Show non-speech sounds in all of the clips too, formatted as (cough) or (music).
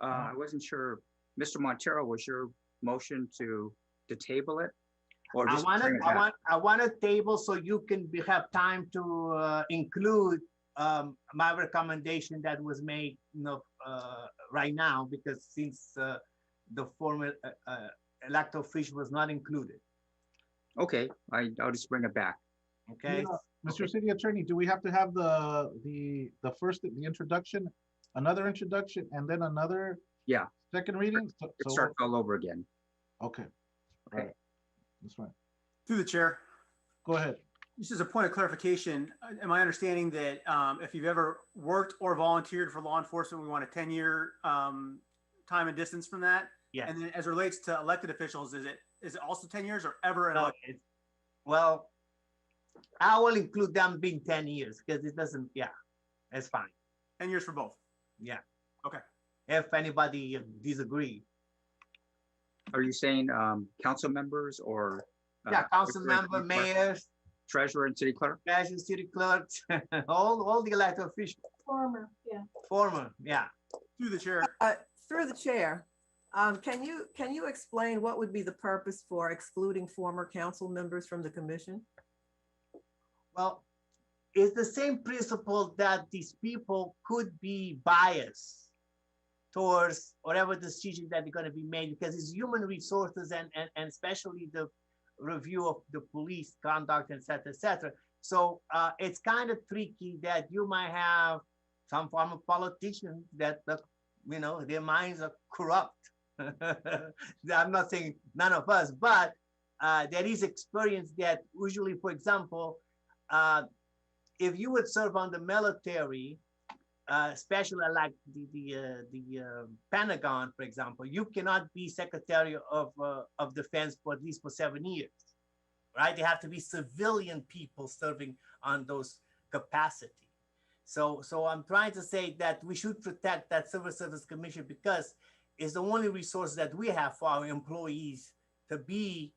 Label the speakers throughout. Speaker 1: Uh-huh.
Speaker 2: Uh, I wasn't sure, Mr. Montero, was your motion to, to table it? Or
Speaker 1: I
Speaker 2: just
Speaker 1: want to,
Speaker 2: bring it
Speaker 1: I
Speaker 2: back?
Speaker 1: want, I want a table so you can be, have time to uh, include um, my recommendation that was made, you know, uh, right now, because since uh, the former uh, uh, lactofish was not included,
Speaker 2: Okay, I, I'll just bring it back.
Speaker 1: okay?
Speaker 3: Yeah. Mr. City Attorney, do we have to have the, the, the first, the introduction, another introduction, and then another?
Speaker 2: Yeah.
Speaker 3: Second reading? So-
Speaker 2: It
Speaker 3: so-
Speaker 2: starts all over again.
Speaker 3: Okay. All right. That's fine.
Speaker 4: Through the chair,
Speaker 3: Go ahead.
Speaker 4: this is a point of clarification. Am I understanding that um, if you've ever worked or volunteered for law enforcement, we want a 10-year um, time and distance from that?
Speaker 1: Yes.
Speaker 4: And then as it relates to elected officials, is it, is it also 10 years or ever? an
Speaker 1: No,
Speaker 4: elec-
Speaker 1: it's- Well, I will include them being ten years, because it doesn't, yeah, it's fine,
Speaker 4: 10 years for both?
Speaker 1: if anybody disagree.
Speaker 2: Are you saying, um, council members or? uh,
Speaker 1: Yeah,
Speaker 2: treasurer
Speaker 1: council
Speaker 2: and
Speaker 1: member,
Speaker 2: city clerk-
Speaker 1: mayors,
Speaker 2: Treasurer and city clerk?
Speaker 1: fashion city clerks, (laughs) all, all the elected officials,
Speaker 5: Former, yeah.
Speaker 1: former, yeah.
Speaker 4: Through the chair,
Speaker 6: Uh, Through the chair, um, can you, can you explain what would be the purpose for excluding former council members from the commission?
Speaker 1: Well, it's the same principle that these people could be biased towards whatever decision that is gonna be made, because it's human resources and, and, and especially the review of the police conduct, et cetera, et cetera. So, uh, it's kind of tricky that you might have some form of politician that, that, you know, their minds are corrupt. (laughs) I'm not saying none of us, but, uh, there is experience that usually, for example, uh, if you would serve on the military, uh, especially like the the, uh, the uh, Pentagon, for example, you cannot be Secretary of uh, of Defense for at least for seven years, right? They have to be civilian people serving on those capacity. So so I'm trying to say that we should protect that Civil Service Commission because it's the only resource that we have for our employees to be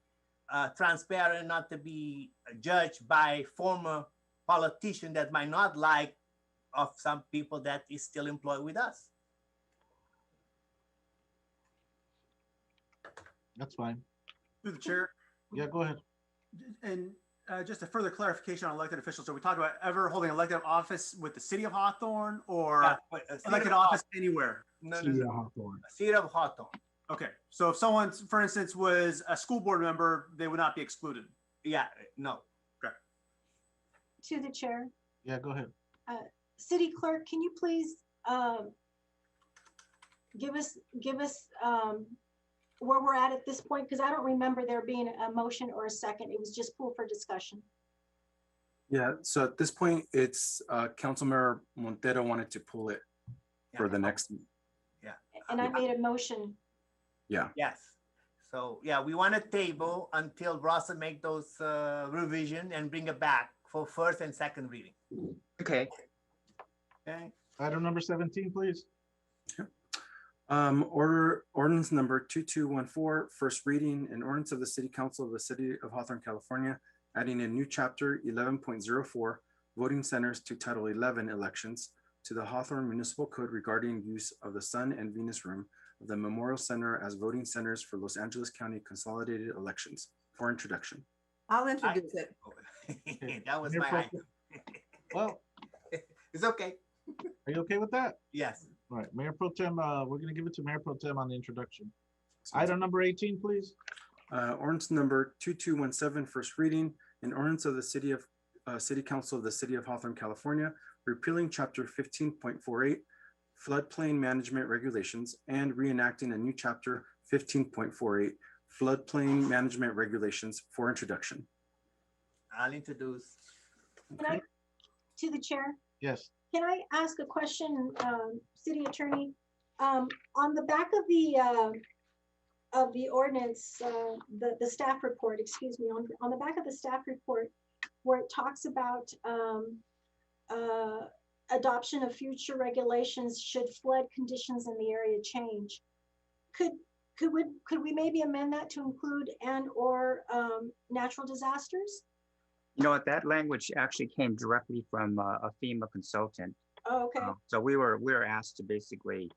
Speaker 1: uh, transparent, not to be judged by former politician that might not like of some people that is still employed with us.
Speaker 3: That's fine.
Speaker 4: through the chair.
Speaker 3: Yeah, go ahead.
Speaker 4: And uh, just a further clarification on elected officials. So we talked about ever holding elective office with the city of Hawthorne or
Speaker 1: But, uh, City
Speaker 4: elected
Speaker 1: of Haw-
Speaker 4: office anywhere?
Speaker 1: No, no, no,
Speaker 3: Hawthorne.
Speaker 1: City of Hawthorne,
Speaker 4: Okay, so if someone, for instance, was a school board member, they would not be excluded.
Speaker 1: yeah, no.
Speaker 5: To the chair.
Speaker 3: Yeah, go ahead.
Speaker 5: City clerk, can you please, um, give us, give us, um, where we're at at this point? Because I don't remember there being a motion or a second. It was just pool for discussion.
Speaker 7: Yeah, so at this point, it's, uh, Councilmember Montero wanted to pull it for
Speaker 1: Yeah.
Speaker 7: the next,
Speaker 5: And I made a motion.
Speaker 1: Yes. So, yeah, we want a table until Rossa make those uh, revision and bring it back for first and second reading,
Speaker 2: Okay,
Speaker 1: okay? (laughs)
Speaker 3: Item number seventeen, please.
Speaker 7: um, order, ordinance number 2214, first reading, an ordinance of the City Council of the City of Hawthorne, California, adding a new chapter 11.04, voting centers to Title 11 elections to the Hawthorne Municipal Code regarding use of the Sun and Venus Room of the Memorial Center as voting centers for Los Angeles County consolidated elections for introduction.
Speaker 6: I'll introduce it.
Speaker 1: That was
Speaker 3: Mayor Pro
Speaker 1: my,
Speaker 3: Tem- Well,
Speaker 1: it's okay,
Speaker 3: are you okay with that?
Speaker 1: yes.
Speaker 3: All right, Mayor Pro Tem, uh, we're gonna give it to Mayor Pro Tem on the introduction. Item number eighteen, please.
Speaker 7: Uh, ordinance number 2217, first reading, an ordinance of the City of, uh, City Council of the City of Hawthorne, California, repealing chapter 15.48 floodplain management regulations and reenacting a new chapter 15.48 floodplain management regulations for introduction.
Speaker 1: I'll introduce.
Speaker 5: Can I, to the chair?
Speaker 3: Yes,
Speaker 5: Can I ask a question, um, city attorney? Um, on the back of the, uh, of the ordinance, uh, the, the staff report, excuse me, on, on the back of the staff report, where it talks about, um, uh, adoption of future regulations should flood conditions in the area change. Could, could we, could we maybe amend that to include and/or, um, natural disasters?
Speaker 2: you know what, that language actually came directly from uh, a FEMA consultant.
Speaker 5: Oh, Okay,
Speaker 2: Uh, So we were, we were asked to basically